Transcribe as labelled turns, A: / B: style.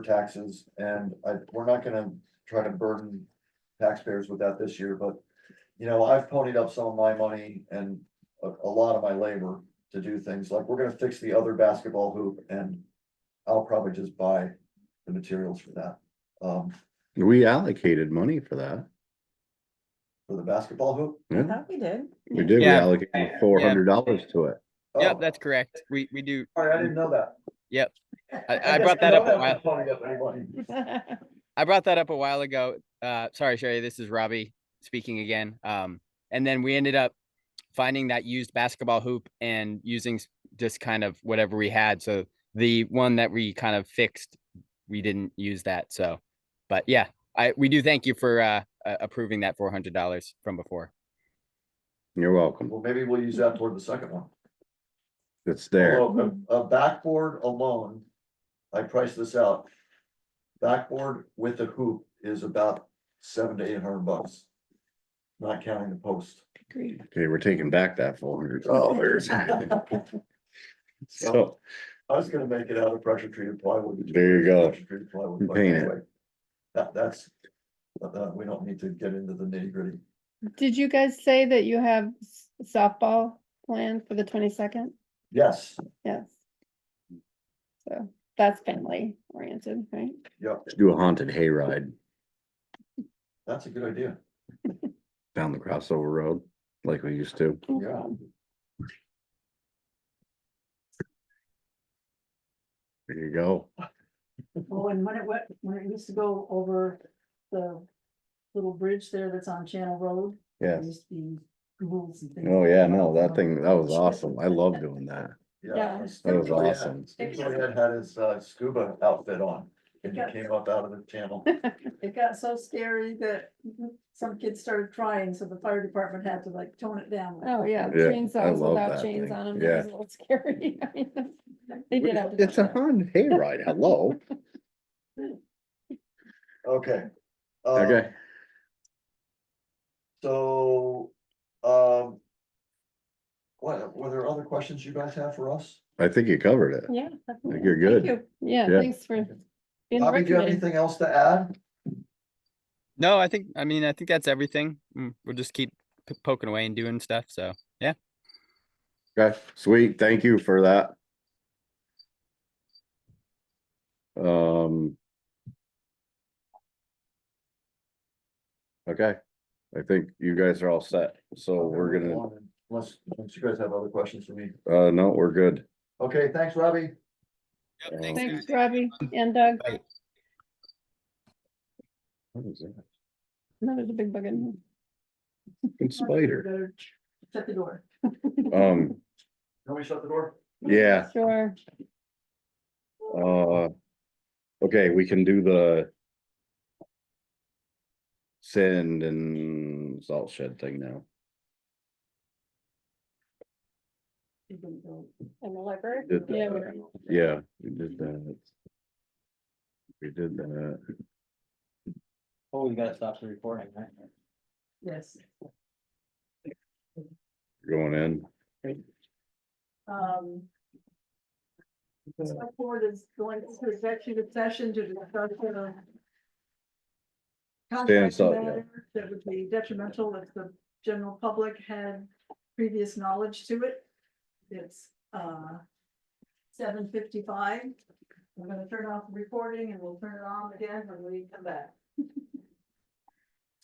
A: taxes and I, we're not gonna try to burden taxpayers with that this year, but. You know, I've ponied up some of my money and a, a lot of my labor to do things like we're gonna fix the other basketball hoop and. I'll probably just buy the materials for that, um,
B: We allocated money for that.
A: for the basketball hoop.
B: Yeah.
C: thought we did.
B: We did, we
D: Yeah.
B: allocated four hundred dollars to it.
A: Oh,
D: Yep, that's correct. We, we do.
A: Sorry, I didn't know that.
D: Yep. I- I
A: didn't
D: brought that
A: know
D: up a
A: was ponied up anyway.
D: I brought that up a while ago. Uh, sorry, Sherry, this is Robbie speaking again. Um, and then we ended up finding that used basketball hoop and using s- just kind of whatever we had. So the one that we kind of fixed, we didn't use that. So, but yeah, I, we do thank you for, uh, a- approving that $400 from before.
B: You're welcome.
A: Well, maybe we'll use that toward the second one.
B: It's there.
A: Although A a backboard alone, I priced this out. Backboard with a hoop is about seven to eight hundred bucks. Not counting the post.
C: Agreed.
B: Okay, we're taking back that four hundred dollars. So,
A: I was gonna make it out of pressure treated plywood.
B: There you go.
A: Pressure treated plywood, but
B: Paint it.
A: anyway, That, that's, but, uh, we don't need to get into the nitty gritty.
E: Did you guys say that you have s- softball planned for the twenty-second?
A: Yes,
E: Yes. So that's family oriented, right?
A: yep,
B: let's do a haunted hayride
A: that's a good idea.
B: down the crossover road like we used to.
A: Yeah.
E: Um,
B: There you go.
F: Oh, and when it went, when it used to go over the little bridge there that's on Channel Road. there
B: Yeah.
F: used to be ghouls and things.
B: Oh, yeah, no, that thing, that was awesome. I love doing that.
A: Yeah.
F: Yeah.
B: That was
A: Oh, yeah.
B: awesome.
A: Steve Lynette had his uh, scuba outfit on and he came up out of the channel.
F: It got so scary that some kids started crying, so the fire department had to like tone it down.
E: Oh, yeah,
B: Yeah, I
E: chainsaws
B: love
E: without
B: that
E: chains
B: thing.
E: on them.
B: Yeah.
E: That was a little scary. I mean, They did have. to
B: It's a
E: do that.
B: haunted hayride. Hello.
A: Okay. Uh,
B: Okay.
A: So, um. What, were there other questions you guys have for us?
B: I think you covered it.
E: Yeah.
B: I think
E: definitely.
B: you're good.
E: Thank you. Yeah,
B: Yeah.
E: thanks for
A: Bobby, do
E: being
A: you have
E: recommended.
A: anything else to add?
D: No, I think, I mean, I think that's everything. Mm, We'll just keep p- poking away and doing stuff. So.
B: Okay, sweet. Thank you for that. Um. Okay, I think you guys are all set. So Oh, we're gonna,
A: Unless, unless you guys have other questions for me.
B: uh, no, we're good.
A: Okay, thanks, Robbie.
B: Yep, thanks,
E: Thanks, Robbie and Doug.
B: What is that?
E: No, there's a big bug in
B: Good spider.
F: Better Shut the door.
B: Um,
A: Can we shut the door?
B: yeah,
E: here. Sure.
B: uh. Okay, we can do the. Send and salt shed thing now.
F: You can go.
E: In the library?
B: Did
E: Yeah,
B: that.
E: we're-
B: Yeah, we did that. We did that.
G: Oh, you gotta stop the recording, right?
F: Yes,
B: Going in.
F: um. the Select board is going to executive session to discuss the. Contract
B: so, yeah.
F: matter that would be detrimental if the general public had previous knowledge to it. It's, uh. Seven fifty-five. I'm gonna turn off the recording and we'll turn it on again when we come back.